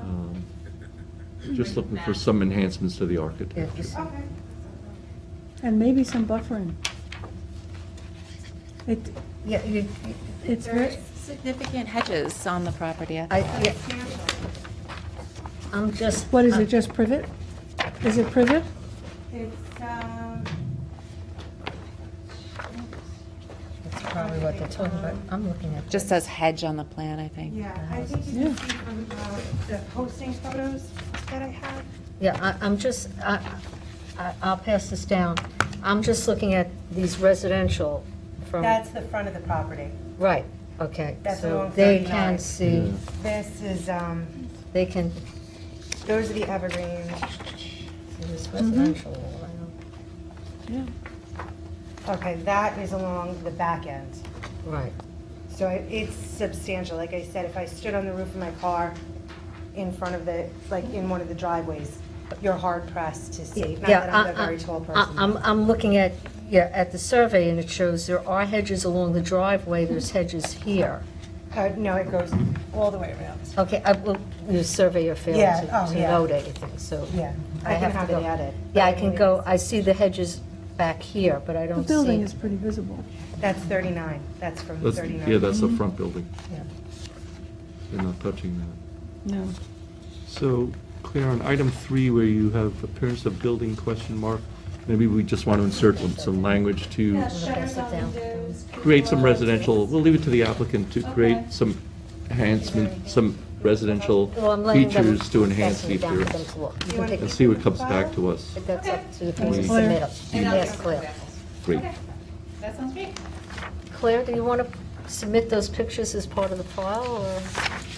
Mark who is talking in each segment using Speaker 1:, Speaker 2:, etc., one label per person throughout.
Speaker 1: Um,
Speaker 2: Just looking for some enhancements to the architecture.
Speaker 1: just-
Speaker 3: Okay,
Speaker 4: And maybe some buffering. It,
Speaker 1: Yeah, you,
Speaker 4: it's very,
Speaker 3: there's,
Speaker 5: Significant hedges on the property. I
Speaker 1: I,
Speaker 5: think.
Speaker 1: yeah, I'm just.
Speaker 4: what is it, just privet? Is it privet?
Speaker 3: it's, um,
Speaker 1: That's probably what they're talking about, I'm looking at.
Speaker 5: Just says hedge on the plan, I think.
Speaker 3: yeah, I think you can see from uh, the posting photos that I have.
Speaker 1: Yeah, I, I'm just, I, I- I'll pass this down. I'm just looking at these residential from.
Speaker 3: That's the front of the property.
Speaker 1: Right, okay.
Speaker 3: That's
Speaker 1: So
Speaker 3: along
Speaker 1: they
Speaker 3: 39.
Speaker 1: can see,
Speaker 3: This is, um,
Speaker 1: they can,
Speaker 3: those are the evergreens.
Speaker 1: see this
Speaker 4: Mm-hmm.
Speaker 1: residential. all around.
Speaker 4: Yeah.
Speaker 3: Okay, that is along the back end.
Speaker 1: Right,
Speaker 3: So I- it's substantial. Like I said, if I stood on the roof of my car in front of the, like in one of the driveways, you're hard pressed to see. Not
Speaker 1: Yeah,
Speaker 3: that I'm a
Speaker 1: I- I-
Speaker 3: very tall
Speaker 1: I-
Speaker 3: person.
Speaker 1: I'm, I'm looking at, yeah, at the survey, and it shows there are hedges along the driveway, there's hedges here.
Speaker 3: Uh, No, it goes all the way around.
Speaker 1: Okay, I, well, the surveyor failed
Speaker 3: Yeah,
Speaker 1: to
Speaker 3: oh,
Speaker 1: to
Speaker 3: yeah.
Speaker 1: note anything, so.
Speaker 3: Yeah,
Speaker 1: I
Speaker 3: I can
Speaker 1: have to
Speaker 3: have
Speaker 1: go.
Speaker 3: it added.
Speaker 1: Yeah, I
Speaker 3: but
Speaker 1: can
Speaker 3: mean,
Speaker 1: go, I see the hedges back here, but I
Speaker 4: The
Speaker 1: don't
Speaker 4: building
Speaker 1: see.
Speaker 4: is pretty visible.
Speaker 3: That's 39. That's from
Speaker 2: That's,
Speaker 3: 39.
Speaker 2: yeah, that's the front building.
Speaker 1: Yeah.
Speaker 2: They're not touching that.
Speaker 4: No.
Speaker 2: So, Claire, on item three, where you have appearance of building question mark, maybe we just want to insert some, some language to
Speaker 1: Pass it down.
Speaker 2: create some residential, we'll leave it to the applicant to create some enhancement, some residential
Speaker 1: Well, I'm letting them-
Speaker 2: features to enhance
Speaker 1: passing
Speaker 2: the
Speaker 1: it down for
Speaker 2: appearance.
Speaker 1: them to look. You
Speaker 3: You
Speaker 1: can
Speaker 3: wanna
Speaker 1: pick-
Speaker 2: And see what comes back to us.
Speaker 1: But that's up to the
Speaker 2: Okay.
Speaker 1: people to
Speaker 4: Claire.
Speaker 1: submit them. Yes, Claire.
Speaker 2: Great.
Speaker 5: That sounds great.
Speaker 1: Claire, do you want to submit those pictures as part of the file, or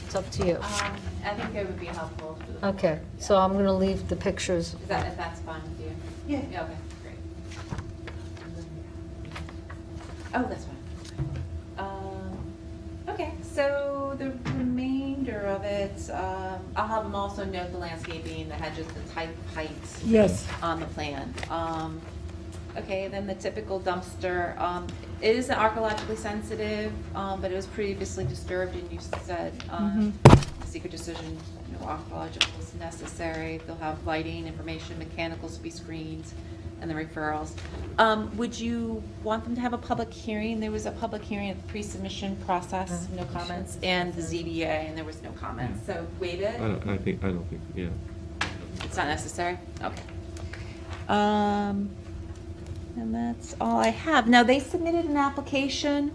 Speaker 1: it's up to you?
Speaker 6: Uh, Um, I think it would be helpful. for the-
Speaker 1: Okay, so I'm going to leave the pictures.
Speaker 6: Is that, if that's fine with you?
Speaker 3: Yeah.
Speaker 6: Yeah, okay, great. Oh, that's fine. Um, Okay, so the remainder of it, um, I'll have them also note the landscaping, the hedges, the type, heights
Speaker 4: Yes.
Speaker 6: on the plan. Um, Okay, then the typical dumpster, um, it is archaeologically sensitive, um, but it was previously disturbed and you said, um, secret decision, no archaeological is necessary. They'll have lighting, information, mechanicals to be screened, and the referrals. Um, would you want them to have a public hearing? There was a public hearing at the pre-submission process, no comments, and the ZBA, and there was no comments, so waive
Speaker 2: I
Speaker 6: it.
Speaker 2: don't, I think, I don't think, yeah.
Speaker 6: It's not necessary? Okay. Um, and that's all I have. Now, they submitted an application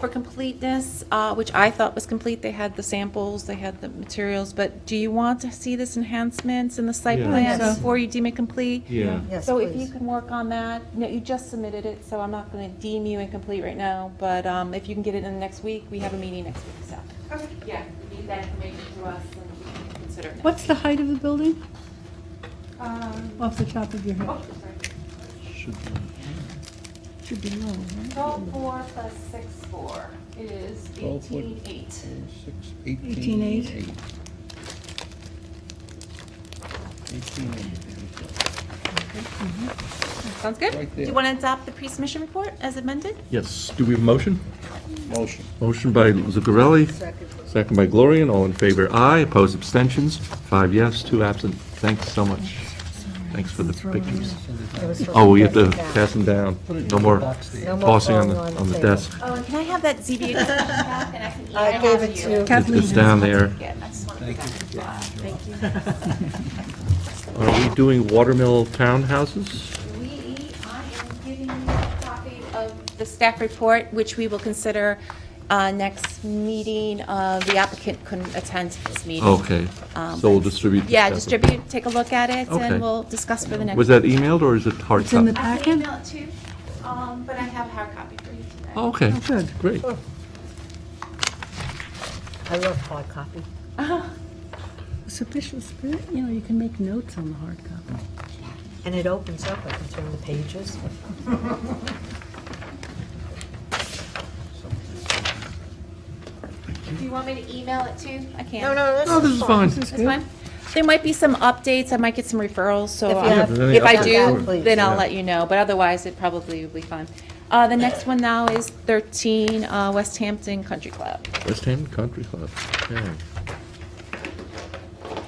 Speaker 6: for completeness, uh, which I thought was complete. They had the samples, they had the materials, but do you want to see this enhancements in the site
Speaker 2: Yeah.
Speaker 6: plan
Speaker 4: So-
Speaker 6: before you deem it complete?
Speaker 2: Yeah.
Speaker 1: Yes,
Speaker 6: So if you
Speaker 1: please.
Speaker 6: can work on that, no, you just submitted it, so I'm not gonna deem you incomplete right now, but, um, if you can get it in next week, we have a meeting next week, so.
Speaker 3: Okay.
Speaker 6: Yeah, you need that information to us and we can consider it. next
Speaker 4: What's the height of the building
Speaker 3: Um,
Speaker 4: off the top of your head?
Speaker 6: Oh, sorry.
Speaker 2: Should-
Speaker 4: Should be low, right?
Speaker 6: Twelve four plus six four is eighteen eight.
Speaker 4: Eighteen eight?
Speaker 6: Sounds good. Do you want to adopt the pre-submission report as amended?
Speaker 2: Yes, do we have a motion?
Speaker 7: Motion.
Speaker 2: Motion by Zuccarelli, second by Gloria, and all in favor, aye, opposed, abstentions, five yes, two absent. Thanks so much. Thanks for the pictures.
Speaker 1: It was supposed
Speaker 2: Oh, we have to
Speaker 1: be down.
Speaker 2: pass them down. No more
Speaker 1: No more
Speaker 2: tossing on the,
Speaker 1: falling
Speaker 2: on the
Speaker 1: table.
Speaker 2: desk.
Speaker 6: Oh, and can I have that ZBA discussion back and I can email
Speaker 1: I gave it to.
Speaker 2: It's
Speaker 4: Kathleen
Speaker 2: it's
Speaker 4: has
Speaker 2: down there.
Speaker 6: Again, I just want to. Thank you.
Speaker 2: Are we doing watermill townhouses?
Speaker 6: We, I am giving you a copy of the staff report, which we will consider uh, next meeting. Uh, The applicant couldn't attend this meeting.
Speaker 2: Okay,
Speaker 6: Um,
Speaker 2: Oh, so we'll distribute.
Speaker 6: Yeah,
Speaker 2: this separate.
Speaker 6: distribute, take a look at it,
Speaker 2: Okay.
Speaker 6: and we'll discuss for the next.
Speaker 2: Was that emailed or is it hard
Speaker 4: It's in
Speaker 2: copy?
Speaker 4: the-
Speaker 6: I can email it to you, um, but I have a hard copy for you today.
Speaker 2: Okay,
Speaker 4: Oh, good.
Speaker 2: great.
Speaker 1: I love hard copy.
Speaker 4: Sufficient spirit, you know, you can make notes on the hard copy.
Speaker 1: And it opens up, I can turn the pages.
Speaker 6: Do you want me to email it to you? I can.
Speaker 1: no,
Speaker 2: Oh, this is fine.
Speaker 4: This is
Speaker 6: That's
Speaker 4: good.
Speaker 6: fine. There might be some updates, I might get some referrals, so
Speaker 1: If you
Speaker 6: uh,
Speaker 1: have-
Speaker 2: Yeah, if
Speaker 6: if I
Speaker 2: there's any updates,
Speaker 6: do,
Speaker 1: please.
Speaker 6: then I'll
Speaker 2: Yeah.
Speaker 6: let you know, but otherwise, it probably will be fine. Uh, The next one now is 13 uh, West Hampton Country Club.
Speaker 2: West Hampton Country Club, yeah.